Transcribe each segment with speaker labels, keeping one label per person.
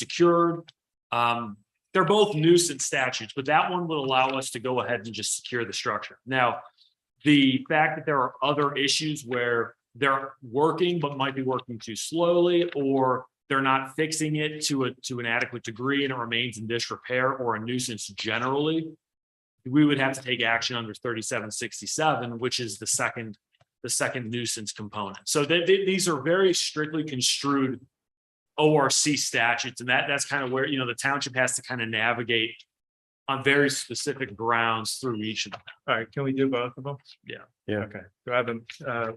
Speaker 1: unsecured. Um, they're both nuisance statutes, but that one would allow us to go ahead and just secure the structure. Now, the fact that there are other issues where they're working but might be working too slowly or they're not fixing it to a, to an adequate degree and it remains in disrepair or a nuisance generally, we would have to take action under thirty-seven sixty-seven, which is the second, the second nuisance component. So they- they- these are very strictly construed ORC statutes, and that, that's kind of where, you know, the township has to kind of navigate on very specific grounds through each of them.
Speaker 2: All right, can we do both of them?
Speaker 1: Yeah.
Speaker 2: Yeah. Okay, do I have them, uh,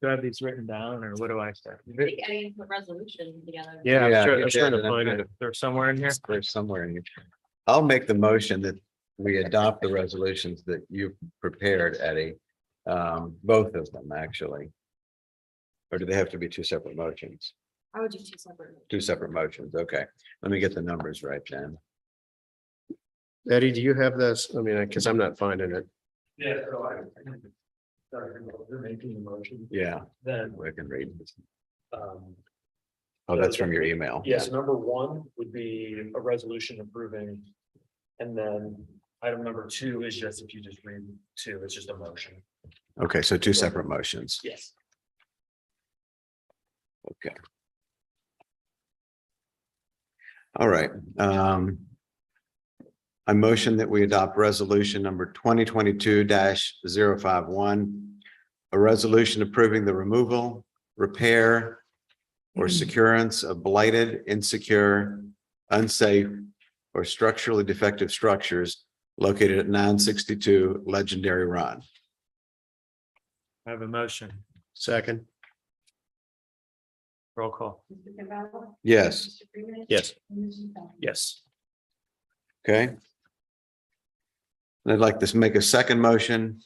Speaker 2: do I have these written down or what do I say?
Speaker 3: I think I didn't put resolution together.
Speaker 2: Yeah,
Speaker 4: Yeah,
Speaker 2: I'm sure,
Speaker 4: you
Speaker 2: I'm sure
Speaker 4: did, and I
Speaker 2: to
Speaker 4: kind
Speaker 2: find it.
Speaker 4: of-
Speaker 2: They're somewhere in here.
Speaker 4: Or somewhere in here. I'll make the motion that we adopt the resolutions that you prepared, Eddie. Um, both of them, actually. Or do they have to be two separate motions?
Speaker 3: I would do two separate.
Speaker 4: Two separate motions, okay. Let me get the numbers right then.
Speaker 5: Eddie, do you have this? I mean, because I'm not finding it.
Speaker 1: Yeah. They're making the motion,
Speaker 4: Yeah,
Speaker 1: then,
Speaker 4: we can read. this.
Speaker 1: um,
Speaker 4: Oh, that's from your email.
Speaker 1: yes, number one would be a resolution approving. And then item number two is just, if you just read two, it's just a motion.
Speaker 4: Okay, so two separate motions.
Speaker 1: Yes.
Speaker 4: Okay. All right, um. I motion that we adopt resolution number twenty twenty-two 51 A resolution approving the removal, repair. Or securance of blighted, insecure, unsafe. Or structurally defective structures located at nine sixty-two Legendary Run.
Speaker 2: I have a motion,
Speaker 5: Second,
Speaker 2: roll call.
Speaker 3: Mr. Campbell.
Speaker 4: Yes,
Speaker 3: Mr. Freeman.
Speaker 5: yes.
Speaker 2: Yes.
Speaker 4: Okay. And I'd like to make a second motion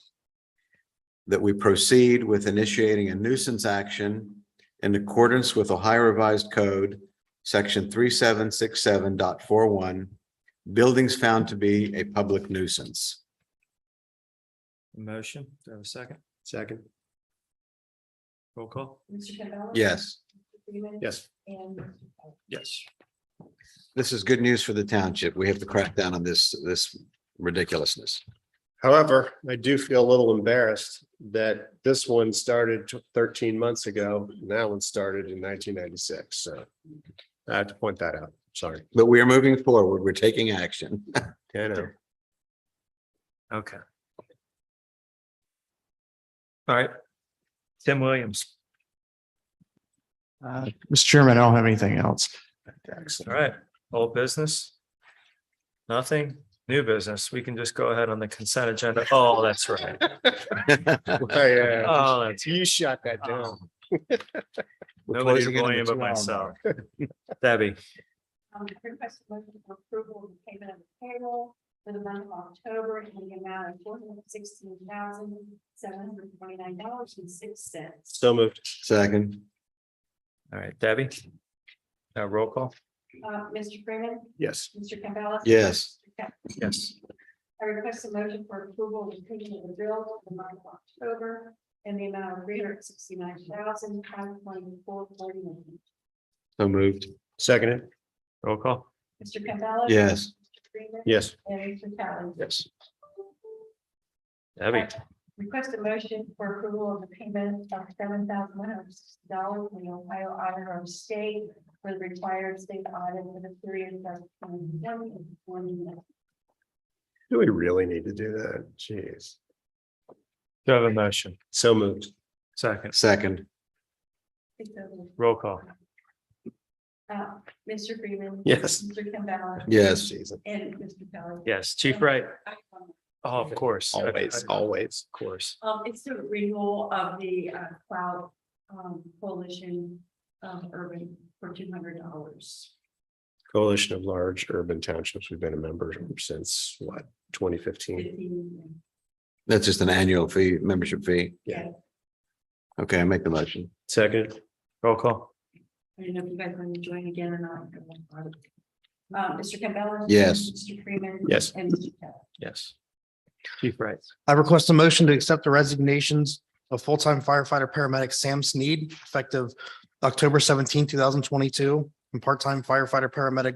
Speaker 4: that we proceed with initiating a nuisance action in accordance with Ohio Revised Code, section 3767.41, buildings found to be a public nuisance.
Speaker 2: Motion, do I have a second?
Speaker 5: Second,
Speaker 2: Roll call?
Speaker 3: Mr. Campbell.
Speaker 4: Yes,
Speaker 3: Mr. Freeman.
Speaker 5: yes.
Speaker 3: And. Mr. Fowler.
Speaker 2: Yes.
Speaker 4: this is good news for the township. We have to crack down on this, this ridiculousness.
Speaker 5: However, I do feel a little embarrassed that this one started tw- thirteen months ago. and That one started in nineteen ninety-six, so. I have to point that out. Sorry.
Speaker 4: But we are moving forward. We're taking action.
Speaker 5: I know.
Speaker 2: Okay. All right. Tim Williams,
Speaker 6: Uh, Mr. Chairman, I don't have anything else.
Speaker 2: all right, old business? Nothing, new business, we can just go ahead on the consent agenda. Oh, that's right.
Speaker 5: Yeah,
Speaker 2: Oh, that's.
Speaker 5: uh, you shot that down.
Speaker 4: We're
Speaker 2: Nobody to
Speaker 4: closing in
Speaker 2: blame
Speaker 4: on the
Speaker 2: but
Speaker 4: two hour
Speaker 2: myself.
Speaker 4: mark.
Speaker 2: Debbie,
Speaker 3: Um, request a motion for approval of the payment of the payroll for the month of October in the amount of four hundred sixteen thousand, seven hundred twenty-nine dollars and six cents.
Speaker 5: So moved.
Speaker 4: Second,
Speaker 2: all right, Debbie. Now roll call?
Speaker 3: Uh, Mr. Freeman.
Speaker 5: Yes.
Speaker 3: Mr. Campbell.
Speaker 4: yes.
Speaker 2: Yes.
Speaker 3: I request a motion for approval of the payment of the bill for the month of October in the amount of three hundred sixty-nine thousand, five twenty-four forty-nine.
Speaker 4: So moved.
Speaker 5: Seconded.
Speaker 2: Roll call?
Speaker 3: Mr. Campbell.
Speaker 4: Yes.
Speaker 3: Mr. Freeman.
Speaker 5: Yes.
Speaker 3: And Mr. Campbell.
Speaker 2: Yes. Debbie,
Speaker 3: Request a motion for approval of the payment of seven thousand one hundred sixty dollars from the Ohio Auditor of State for the required state audit for the period of twenty twenty and twenty one.
Speaker 5: Do we really need to do that? Jeez.
Speaker 2: do I have a motion?
Speaker 5: So moved.
Speaker 2: Second,
Speaker 4: Second,
Speaker 2: roll call?
Speaker 3: Uh, Mr. Freeman.
Speaker 5: Yes.
Speaker 3: Mr. Campbell.
Speaker 4: yes.
Speaker 5: Jeez,
Speaker 3: And Mr. Kelly.
Speaker 2: Yes, Chief Wright?
Speaker 3: Um,
Speaker 2: Oh, of course. I-
Speaker 5: Always,
Speaker 2: I- Of
Speaker 5: always.
Speaker 2: course.
Speaker 3: Um, it's the renewal of the uh, cloud um, coalition of urban for two hundred dollars.
Speaker 5: Coalition of Large Urban Townships. We've been a member since what, twenty fifteen?
Speaker 4: That's just an annual fee, membership fee.
Speaker 3: Yeah.
Speaker 4: Okay, I make the motion.
Speaker 5: Second,
Speaker 2: Roll call?
Speaker 3: I don't know if you guys want to join again or not. Uh, Mr. Campbell.
Speaker 4: Yes.
Speaker 3: Mr. Freeman.
Speaker 5: Yes.
Speaker 3: And Mr. Kelly.
Speaker 2: Yes. Chief Wright?
Speaker 6: I request a motion to accept the resignations of full-time firefighter paramedic Sam Sneed effective October 17, thousand twenty-two and part-time firefighter paramedic